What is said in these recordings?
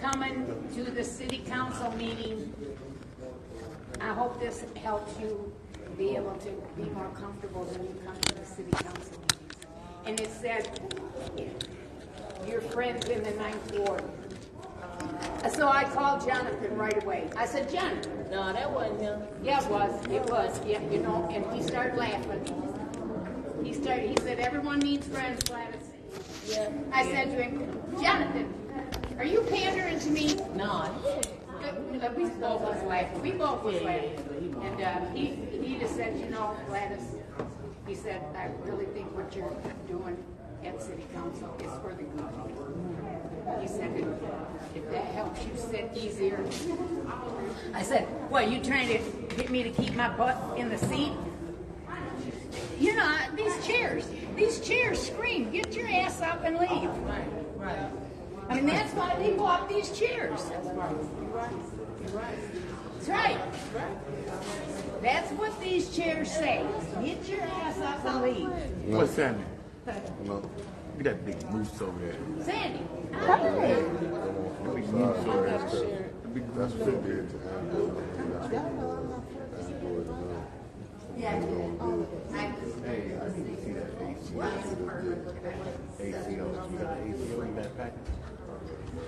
coming to the city council meeting. I hope this helps you be able to be more comfortable when you come to the city council meetings. And it said, your friends in the ninth ward. So I called Jonathan right away. I said, Jonathan, No, that wasn't him. Yeah, it was, it was, yeah, you know, and he started laughing. He started, he said, everyone needs friends, Gladys. Yeah. I said to him, Jonathan, are you pandering to me? No. Uh, We both was laughing, we both was laughing. And, uh, he, he just said, you know, Gladys, he said, I really think what you're doing at city council is for the good. He said, if- if that helps you sit easier, I said, "Well, you trying to get me to keep my butt in the seat?" You know, I- these chairs, these chairs scream, "Get your ass up and leave!" Oh, Right, right. I mean, that's why they bought these chairs. That's right. You're right. That's right. That's what these chairs say. Get your ass up and leave. What's happening? Look at that big moose over there. Sandy, That big moose over there. That big moose over there. Hey, I need to see that AC. AC on, you got the AC on that package?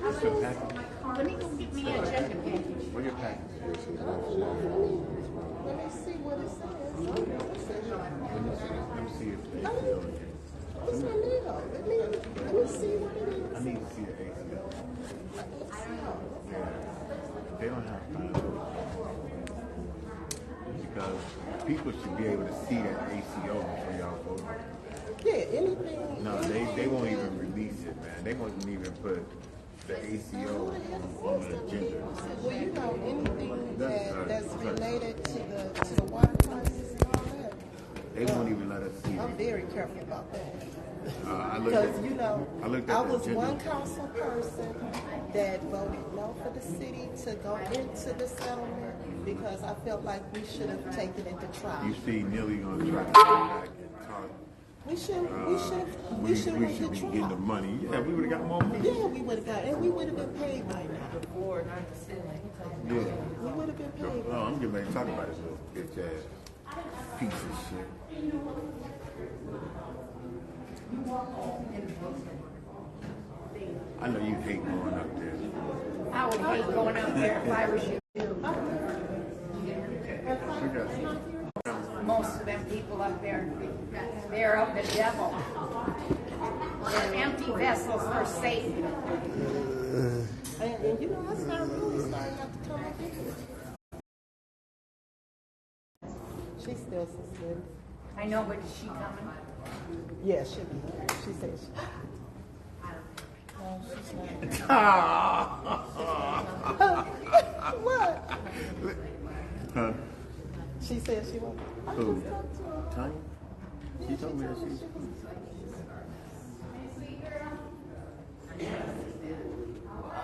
What's your package? let me go get me a agenda package. What's your package? Let me see what it says. Let me see, let me see if the AC on What's my needle? Let me, let me see what it it. I is. need to see the AC on it. Yeah. They don't have time. Because people should be able to see that ACO before y'all vote. Yeah, anything. No, they, they won't even release it, man. They won't even put the ACO on the agenda. Well, you know, anything That's that, right. that's related to the, to the water crisis and all that, They won't even let us see I'm it. very careful about that. Uh, I looked Because, at, you know, I looked at I the was agenda. one council person that voted no for the city to go into the settlement because I felt like we should have taken it to trial. you see Neely gonna try to come back and talk. We should, we Uh, should, we, we should we went should be to getting the trial. money. Yeah, we would've got more money. Yeah, we would have got, and we would have been paid by now. Yeah. We would have been paid. No, I'm getting ready to talk about this little bitch ass piece of shit. I know you hate going up there. I would hate going out there if I was you. We got- Most of them people up there, they're of the devil. They're empty vessels for Satan. And, and you know, I started really starting not to come up here. She's still suspended. I know, but is she coming? Yeah, she be. She says. No, she's not. What? She said she won't. I Who? just talked to her. Tanya? She told me that she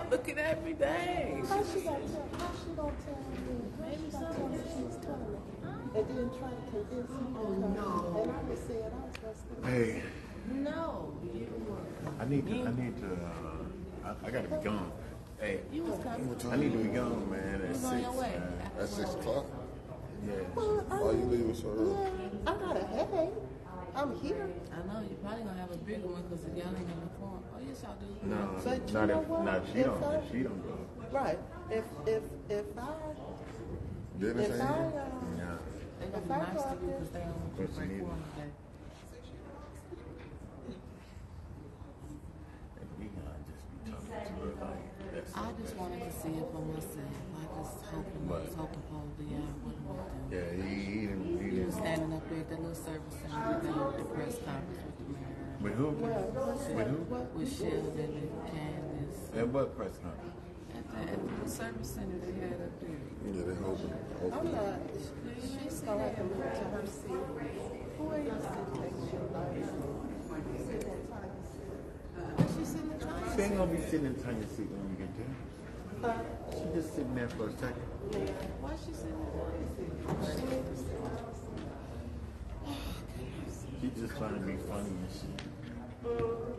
Looking at me, dang. How she gonna tell? How she gonna tell me? How she gonna tell me she was coming? And then try to convince me. Oh no! And I was saying I was gonna. stay. Hey, No, you I need to, I need to, uh, I, I gotta be gone. Hey, you was coming. I need to be gone, man, at six, on your way. man. At six o'clock? Yeah. Well, I Why you mean, leaving so early? Yeah, I got a headache. I'm here. I know you're probably gonna have a bigger one because the y'all ain't gonna form. Oh yes, y'all do. No, But you not know if, what? not if she If don't, I- if she don't go. Right. If if if I uh, Dennis if ain't I here? uh, Yeah. They gonna be nice to you because they don't want you to But you break need- form today. We gonna just be talking to her like, that's, I just wanted to see it for myself. I just hoping, I was Right. hoping for Leon wouldn't want to. yeah, he, he didn't, he He was didn't. standing up there at that little service center with the- the press conference with the mayor, With who? With who? what with Sheldon and Candace. At what press conference? At the, at the service center they had up there. Yeah, they open. I'm open. not. She's gonna have to move to her seat. Who are you sitting next to? She's sitting in the driver's She seat. ain't gonna be sitting in Tanya's seat when we get there. Uh, She just sitting there for a second. Why she sitting in the driver's seat? She needs to sit in the driver's seat. She's just trying to be funny and shit.